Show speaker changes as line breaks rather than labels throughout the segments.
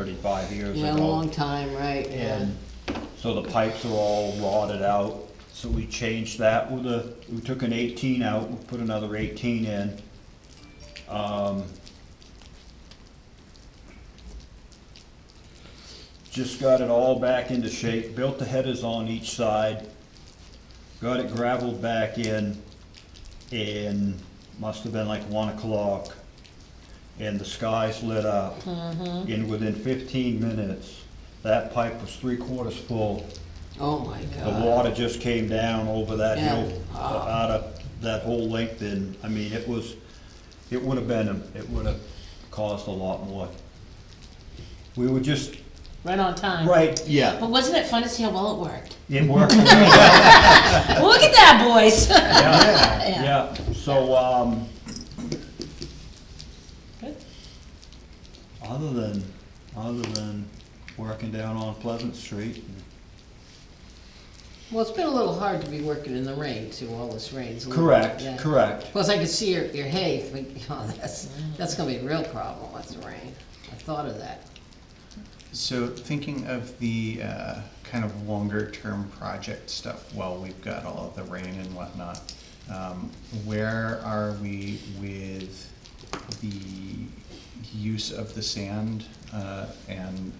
thirty-five years ago.
Yeah, a long time, right, yeah.
And so the pipes are all rotted out, so we changed that with a, we took an eighteen out, we put another eighteen in. Um, Just got it all back into shape, built the headers on each side, got it gravelled back in, and must have been like one o'clock. And the skies lit up.
Hmm.
And within fifteen minutes, that pipe was three quarters full.
Oh, my
The
God.
water just came down over that
Yeah. Ah.
hill, uh, out of that whole length, and, I mean, it was, it would have been, it would have caused a lot more. We were just,
Right on time.
right,
But
yeah,
wasn't it fun to see how well it worked?
it worked, yeah,
Look at that, boys.
yeah, so, um,
Good.
other than, other than working down on Pleasant Street,
Well, it's been a little hard to be working in the rain, too, all this rain's. a little-
correct,
yeah.
correct.
Plus, I could see your, your hay, but, oh, that's, that's gonna be a real problem with the rain. I thought of that.
So thinking of the uh, kind of longer term project stuff, while we've got all of the rain and whatnot, um, where are we with the use of the sand? uh, And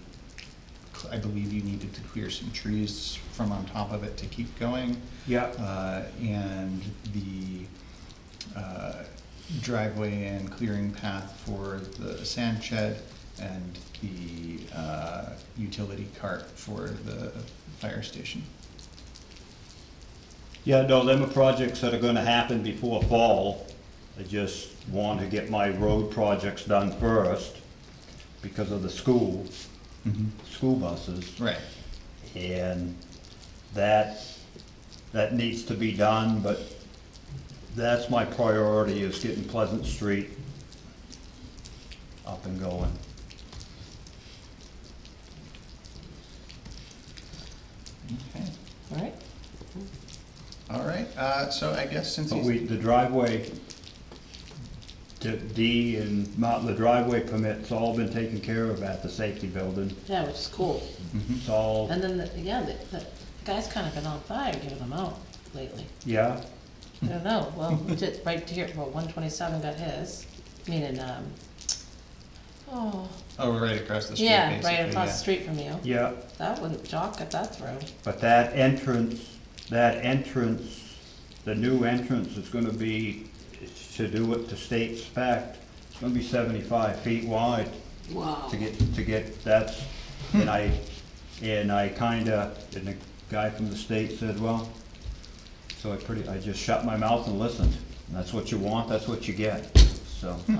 cl- I believe you needed to clear some trees from on top of it to keep going.
Yeah.
Uh, And the uh, driveway and clearing path for the sand shed and the uh, utility cart for the fire station.
Yeah, no, them are projects that are gonna happen before fall. I just want to get my road projects done first because of the school, school buses.
Right.
And that, that needs to be done, but that's my priority is getting Pleasant Street up and going.
Okay.
All right.
All right. Uh, so I guess since
But
he's,
we, the driveway, the D and, Mount- the driveway permit's all been taken care of at the safety building.
Yeah, which is cool.
It's all
And then, the, yeah, the, the guy's kind of been on fire giving them out lately.
Yeah,
I don't know. Well, we did right here. Well, 127 got his. Meaning, um, oh,
oh, right across the street.
yeah,
basically,
right across
yeah.
the street from you.
yeah,
That wouldn't Jock got that through.
but that entrance, that entrance, the new entrance is gonna be, to do it to state spec, it's gonna be seventy-five feet wide
Wow.
to get, to get, that's, and I, and I kinda, and the guy from the state said, well, so I pretty, I just shut my mouth and listened, and that's what you want, that's what you get, so.
Hmm.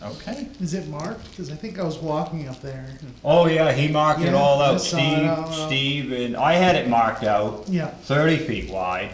Okay.
Is it marked? Because I think I was walking up there.
Oh, yeah, he marked it all
Yeah, I
out,
saw it
Steve,
all out.
Steve, and I had it marked out.
Yeah.
thirty feet wide.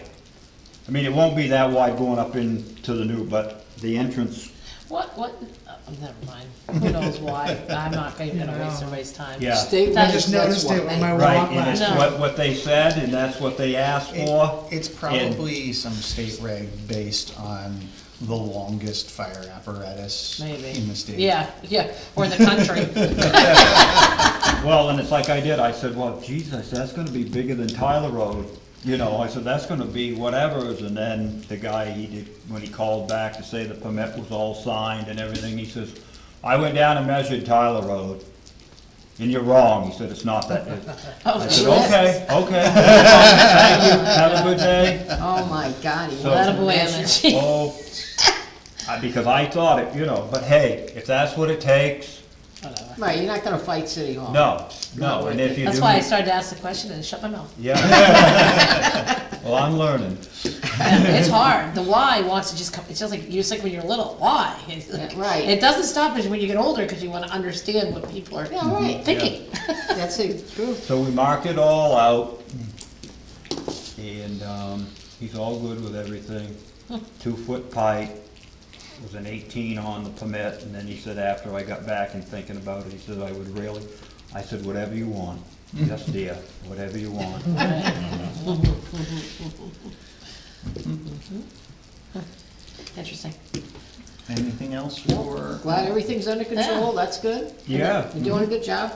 I mean, it won't be that wide going up into the new, but the entrance,
What, what? Oh, never mind. Who knows why? I'm not even going to waste
Yeah.
everybody's time.
Yeah.
State
I
regs,
just
that's
noticed it when
why.
my-
right,
walk
and it's
last.
what, what they said, and that's what they asked for.
It's probably some state reg based on the longest fire apparatus
Maybe.
in the state.
Yeah, yeah, or the country.
Well, and it's like I did, I said, well, geez, I said, that's gonna be bigger than Tyler Road, you know, I said, that's gonna be whatever's, and then the guy, he did, when he called back to say the permit was all signed and everything, he says, I went down and measured Tyler Road, and you're wrong, he said, it's not that,
Oh,
I said, okay, okay, thank you, have a good day.
Oh, my God, he
So-
wants to
Attaboy,
measure.
Emmett.
Oh, I- because I thought it, you know, but hey, if that's what it takes,
Whatever.
Right, you're not gonna fight City Hall.
no, no, and if you do.
That's why I started to ask the question and shut my mouth.
Yeah. Well, I'm learning.
It's hard. The why wants to just come, it's just like, you just like when you're little, why? It's like-
Yeah, right.
It doesn't stop us when you get older because you want to understand what people are
Yeah, right,
thinking.
that's the truth.
So we marked it all out, and, um, he's all good with everything. Two-foot pipe, it was an eighteen on the permit, and then he said after I got back and thinking about it, he said, I would really, I said, whatever you want. Yes, dear, whatever you want.
Interesting.
Anything else for?
Glad everything's under control, that's good.
Yeah.
You're doing a good job.